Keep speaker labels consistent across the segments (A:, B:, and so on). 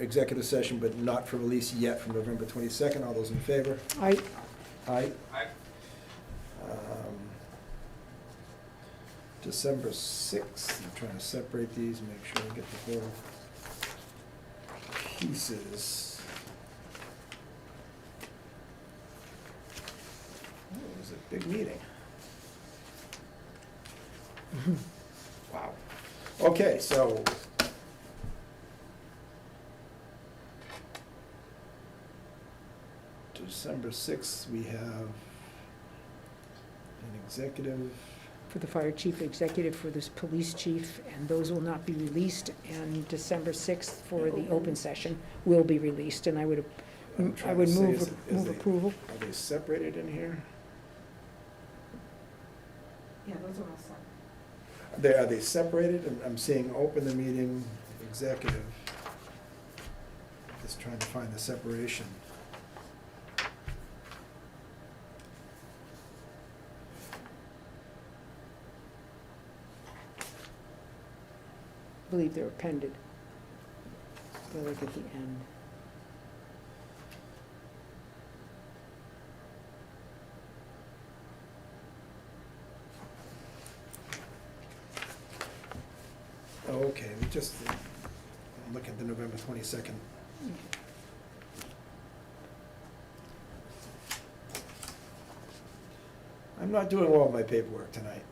A: executive session, but not for release yet from November 22nd. All those in favor?
B: I,
A: Aye.
C: Aye.
A: Um, December 6th, I'm trying to separate these, make sure I get the whole pieces. Oh, It was a big meeting. Wow. Okay, so. December 6th, we have an executive,
B: for the fire chief, executive for this police chief, and those will not be released. And December 6th for the open session will be released, and I would,
A: I'm
B: I
A: trying to
B: would
A: say, is,
B: move,
A: is
B: move
A: they,
B: approval.
A: are they separated in here?
D: Yeah, those are all set.
A: They, are they separated? I'm, I'm seeing open the meeting, executive. Just trying to find the separation.
B: I believe they're appended. They're like at the end.
A: Oh, okay, we just, look at the November twenty-second. I'm not doing well with my paperwork tonight.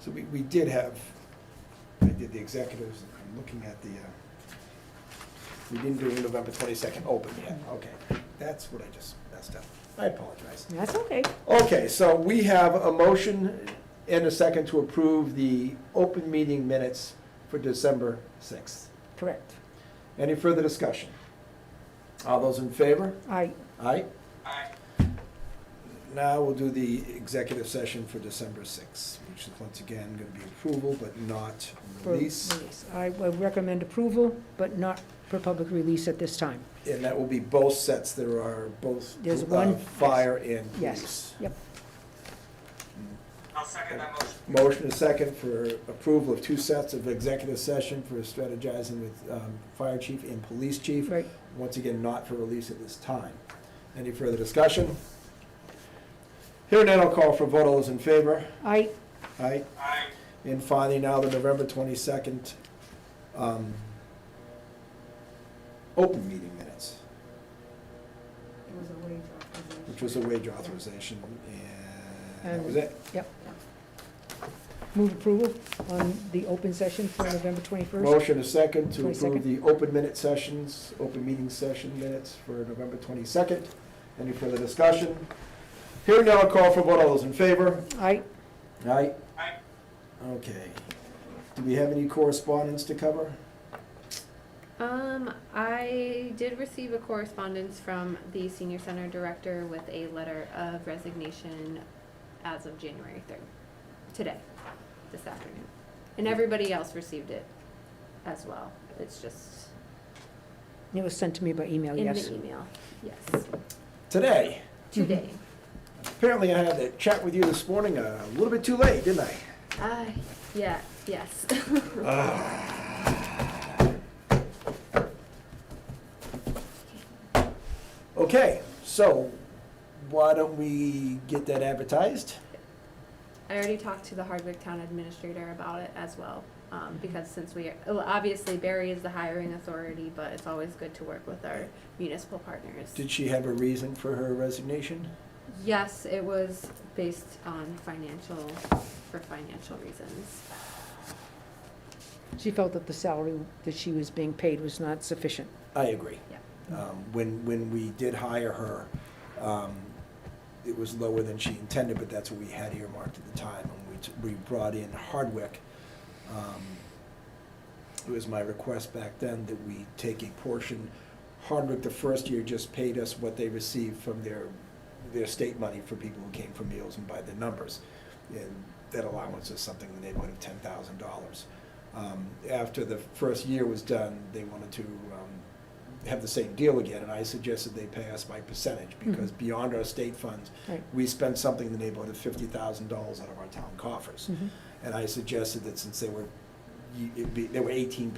A: So we, we did have, I did the executives, I'm looking at the, uh, we didn't do November twenty-second open yet, okay. That's what I just messed up. I apologize.
B: That's okay.
A: Okay, so we have a motion and a second to approve the open meeting minutes for December 6th.
B: Correct.
A: Any further discussion? All those in favor?
B: I,
A: Aye.
C: Aye.
A: Now we'll do the executive session for December 6th, which is once again going to be approval but not
B: for
A: release.
B: release. I would recommend approval, but not for public release at this time.
A: And that will be both sets. There are both
B: There's
A: uh,
B: one-
A: fire and police.
B: Yes, yep.
C: I'll second that motion.
A: Motion is second for approval of two sets of executive session for strategizing with um, fire chief and police chief.
B: Right.
A: Once again, not for release at this time. Any further discussion? Hearing none, I'll call for a vote. All those in favor?
B: I,
A: Aye.
C: Aye.
A: And finally, now the November 22nd um, open meeting minutes,
D: It was a wage authorization.
A: which was a wage authorization, and that was
B: And-
A: it.
B: move approval on the open session for November 21st.
A: Motion is second to approve
B: 22nd.
A: the open minute sessions, open meeting session minutes for November 22nd. Any further discussion? Hearing none, I'll call for a vote. All those in favor?
B: I,
A: Aye.
C: Aye.
A: Okay. Do we have any correspondence to cover?
E: Um, I did receive a correspondence from the senior center director with a letter of resignation as of January third, today, this afternoon. And everybody else received it as well. It's just
B: it was sent to me by email,
E: in
B: Oh, yes.
E: the email, yes,
A: Today,
E: today.
A: apparently I had that chat with you this morning uh, a little bit too late, didn't I?
E: Ah, yeah, yes.
A: Ah. Okay, so why don't we get that advertised?
E: I already talked to the Hardwick Town Administrator about it as well, um, because since we, well, obviously Barry is the hiring authority, but it's always good to work with our municipal partners.
A: Did she have a reason for her resignation?
E: Yes, it was based on financial, for financial reasons.
B: She felt that the salary that she was being paid was not sufficient.
A: I agree.
B: Yeah.
A: Um, When, when we did hire her, um, it was lower than she intended, but that's what we had earmarked at the time. And we, t- we brought in Hardwick. Um, It was my request back then that we take a portion. Hardwick, the first year, just paid us what they received from their, their state money for people who came for meals and by the numbers. And that allowance is something in the neighborhood of ten thousand dollars. Um, After the first year was done, they wanted to um, have the same deal again, and I suggested they pay us by percentage, because
B: Mhm.
A: beyond our state funds,
B: Right.
A: we spend something in the neighborhood of fifty thousand dollars out of our town coffers.
B: Mhm.
A: And I suggested that since they were you- it'd be, there were eighteen